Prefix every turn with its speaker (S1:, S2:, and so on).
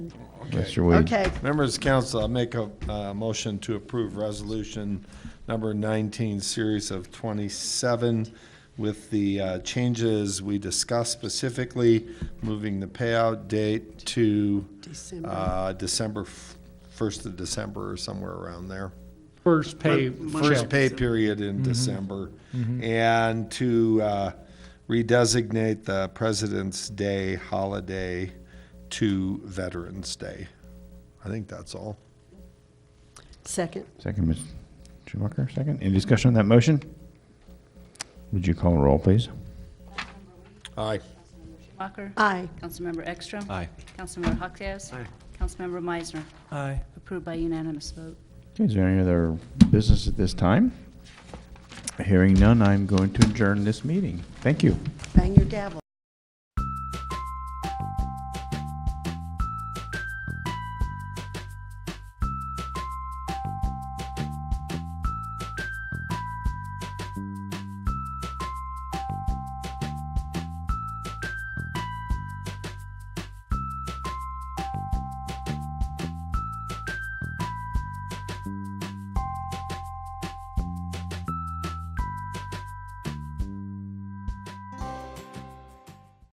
S1: Mr. Wade.
S2: Okay,
S3: Members of council, I make a uh, motion to approve resolution number 19, series of 27, with the uh, changes we discussed specifically, moving the payout date to
S2: December.
S3: uh, December, f- 1st of December or somewhere around there.
S4: First pay
S3: First
S4: check.
S3: pay period in December, and to uh, redesignate the President's Day holiday to Veterans Day. I think that's all.
S2: Second,
S1: Second, Ms. Schumacher, second. Any discussion on that motion? Would you call a roll, please?
S3: Aye.
S5: Walker.
S2: aye.
S5: Councilmember Ekstrom.
S6: Aye.
S5: Councilmember Hockass.
S6: Aye.
S5: Councilmember Meisner.
S6: Aye.
S5: Approved by unanimous vote.
S1: Okay, is there any other business at this time? Hearing none, I'm going to adjourn this meeting. Thank you.
S2: Bang your gavel.